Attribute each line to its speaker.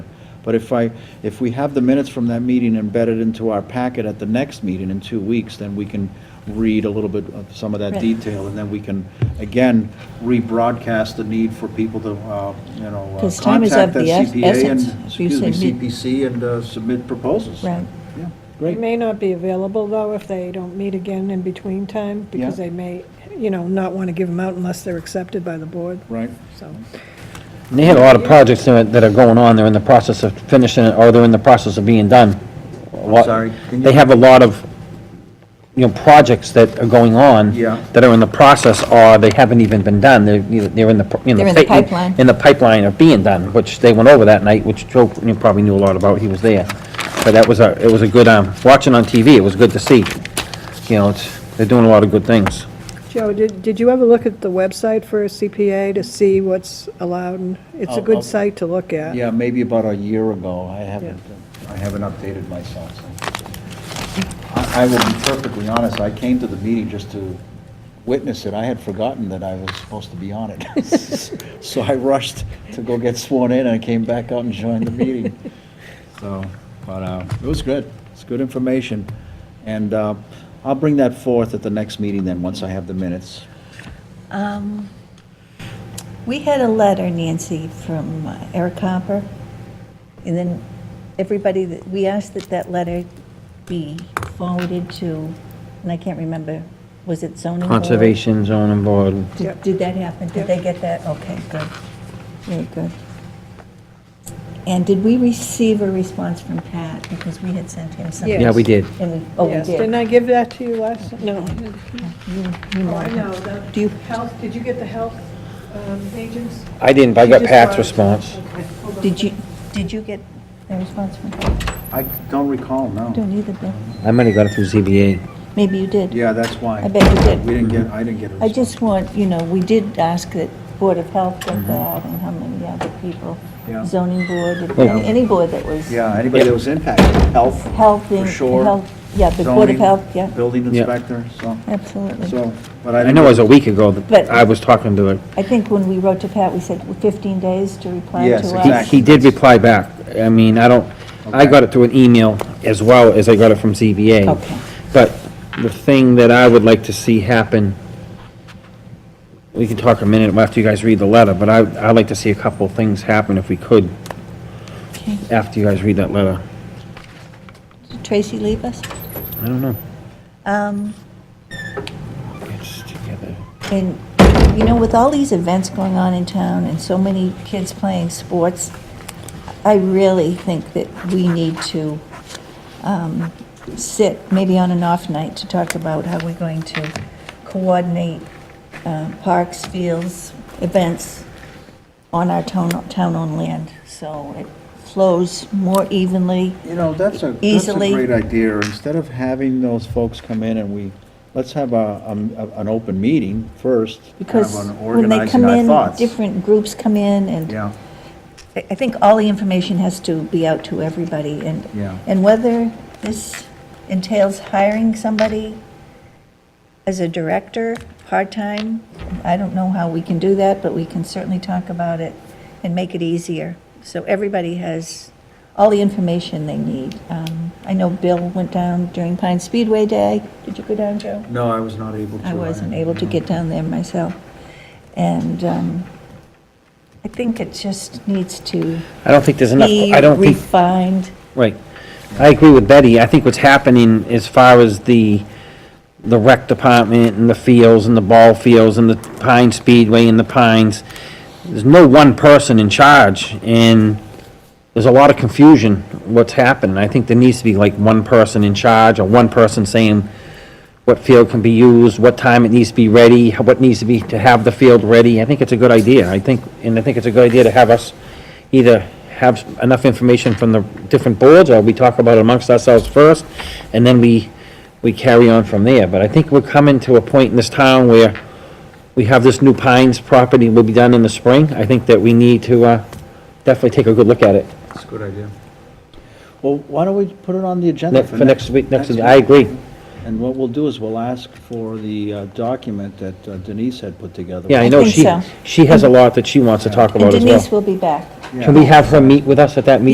Speaker 1: But if I, if we have the minutes from that meeting embedded into our packet at the next meeting in two weeks, then we can read a little bit of some of that
Speaker 2: Right.
Speaker 1: detail, and then we can, again, rebroadcast the need for people to, uh, you know, uh,
Speaker 2: 'Cause time is of
Speaker 1: contact that
Speaker 2: the es-
Speaker 1: CPA and,
Speaker 2: essence. If you
Speaker 1: excuse me,
Speaker 2: submit-
Speaker 1: CPC and uh, submit proposals.
Speaker 2: Right.
Speaker 1: Yeah,
Speaker 3: It
Speaker 1: great.
Speaker 3: may not be available, though, if they don't meet again in between time, because
Speaker 1: Yeah.
Speaker 3: they may, you know, not want to give them out unless they're accepted by the board,
Speaker 1: Right.
Speaker 3: so.
Speaker 4: And They had a lot of projects that that are going on, they're in the process of finishing, it, or they're in the process of being done. A lot-
Speaker 1: sorry, can you-
Speaker 4: They have a lot of, you know, projects that are going on.
Speaker 1: Yeah.
Speaker 4: That are in the process, or they haven't even been done, they're, you know, they're in the. pr-
Speaker 2: They're in the
Speaker 4: fa-
Speaker 2: pipeline.
Speaker 4: In the pipeline of being done, which they went over that night, which Joe you know, probably knew a lot about, he was there. But that was a, it was a good, um, watching on TV, it was good to see. You know, it's, they're doing a lot of good things.
Speaker 3: Joe, did, did you ever look at the website for a CPA to see what's allowed? And It's
Speaker 2: Oh,
Speaker 3: a
Speaker 1: I'll- I'll-
Speaker 3: good site to look at.
Speaker 1: Yeah, maybe about a year ago. I haven't, I haven't updated myself. so. I I will be perfectly honest, I came to the meeting just to witness it. I had forgotten that I was supposed to be on it. So I rushed to go get sworn in, and I came back out and joined the meeting. So, but uh, it was good. It's good information. And uh, I'll bring that forth at the next meeting then, once I have the minutes.
Speaker 2: Um, We had a letter, Nancy, from uh, Eric Hopper, and then everybody, that we asked that that letter be forwarded to, and I can't remember, was it zoning board?
Speaker 4: Conservation zoning board,
Speaker 2: Did did that happen? Did they get that? Okay, good. Very good. And did we receive a response from Pat? Because we had sent him something.
Speaker 3: Yes.
Speaker 4: yeah, we did.
Speaker 2: And we, oh, we
Speaker 3: Yes, Didn't
Speaker 2: did.
Speaker 3: I give that to you last, no.
Speaker 2: You
Speaker 3: Oh, I
Speaker 2: know.
Speaker 3: know, the
Speaker 2: Do you-
Speaker 3: health, did you get the health um, agents?
Speaker 4: I didn't, but I
Speaker 3: She
Speaker 4: got
Speaker 3: just
Speaker 4: Pat's
Speaker 3: brought it.
Speaker 4: response.
Speaker 3: Okay, hold on.
Speaker 2: Did you, did you get a response from Pat?
Speaker 1: I don't recall,
Speaker 2: I
Speaker 1: no.
Speaker 2: don't either, Bill.
Speaker 4: I might have got it through ZBA.
Speaker 2: Maybe you did.
Speaker 1: Yeah, that's why.
Speaker 2: I bet you did.
Speaker 1: We didn't get, I didn't get a
Speaker 2: I
Speaker 1: response.
Speaker 2: just want, you know, we did ask that Board of Health got that, and how many other people,
Speaker 1: Mm-hmm. Yeah.
Speaker 2: zoning board, and
Speaker 4: Well-
Speaker 2: any any board that was
Speaker 1: Yeah, anybody that was impacted, health,
Speaker 2: health,
Speaker 1: for
Speaker 2: and
Speaker 1: sure.
Speaker 2: health, yeah, the Board
Speaker 1: zoning,
Speaker 2: of Health, yeah,
Speaker 1: Building
Speaker 4: Yeah.
Speaker 1: inspector, so,
Speaker 2: absolutely.
Speaker 1: so, but I
Speaker 4: I
Speaker 1: didn't.
Speaker 4: know it was a week ago that
Speaker 2: But-
Speaker 4: I was talking to him.
Speaker 2: I think when we wrote to Pat, we said well, 15 days to reply to
Speaker 1: Yes,
Speaker 2: us.
Speaker 1: exactly.
Speaker 4: He did reply back. I mean, I don't, I got it through an email as well as I got it from ZBA.
Speaker 2: Okay.
Speaker 4: But the thing that I would like to see happen, we can talk a minute after you guys read the letter, but I, I'd like to see a couple of things happen if we could,
Speaker 2: Okay.
Speaker 4: after you guys read that letter.
Speaker 2: Did Tracy leave us?
Speaker 4: I don't know.
Speaker 2: Um,
Speaker 4: It's together.
Speaker 2: And, you know, with all these events going on in town and so many kids playing sports, I really think that we need to um, sit, maybe on an off night, to talk about how we're going to coordinate uh, parks, fields, events on our town- town-owned land, so it flows more evenly.
Speaker 1: You know, that's a, that's a
Speaker 2: Easily.
Speaker 1: great idea. Instead of having those folks come in and we, let's have a, um, a- an open meeting first. kind of
Speaker 2: Because
Speaker 1: on
Speaker 2: when they
Speaker 1: organizing
Speaker 2: come
Speaker 1: our
Speaker 2: in,
Speaker 1: thoughts.
Speaker 2: different groups come in, and
Speaker 1: Yeah,
Speaker 2: I I think all the information has to be out to everybody, and,
Speaker 1: Yeah.
Speaker 2: and whether this entails hiring somebody as a director, part-time, I don't know how we can do that, but we can certainly talk about it and make it easier. So everybody has all the information they need. Um, I know Bill went down during Pine Speedway Day. Did you go down, Joe?
Speaker 1: no, I was not able to.
Speaker 2: I wasn't able to get down there myself. And um, I think it just needs to
Speaker 4: I don't think there's enough,
Speaker 2: be
Speaker 4: I don't think.
Speaker 2: refined.
Speaker 4: Right. I agree with Betty. I think what's happening as far as the, the rec department and the fields and the ball fields and the Pine Speedway and the Pines, there's no one person in charge and there's a lot of confusion what's happening. I think there needs to be like one person in charge or one person saying what field can be used, what time it needs to be ready, what needs to be, to have the field ready. I think it's a good idea. I think, and I think it's a good idea to have us either have enough information from the different boards, or we talk about it amongst ourselves first, and then we, we carry on from there. But I think we're coming to a point in this town where we have this new Pines property will be done in the spring. I think that we need to, uh, definitely take a good look at it.
Speaker 1: It's a good idea. Well, why don't we put it on the agenda
Speaker 4: Ne-
Speaker 1: for
Speaker 4: for
Speaker 1: next?
Speaker 4: next week, next week. I agree.
Speaker 1: And what we'll do is we'll ask for the uh, document that uh, Denise had put together.
Speaker 4: Yeah, I
Speaker 2: I
Speaker 4: know
Speaker 2: think
Speaker 4: she,
Speaker 2: so.
Speaker 4: she has a lot that she wants to talk
Speaker 2: And
Speaker 4: about as well.
Speaker 2: Denise will be back.
Speaker 1: Yeah.
Speaker 4: Can we have her meet with us at that meeting?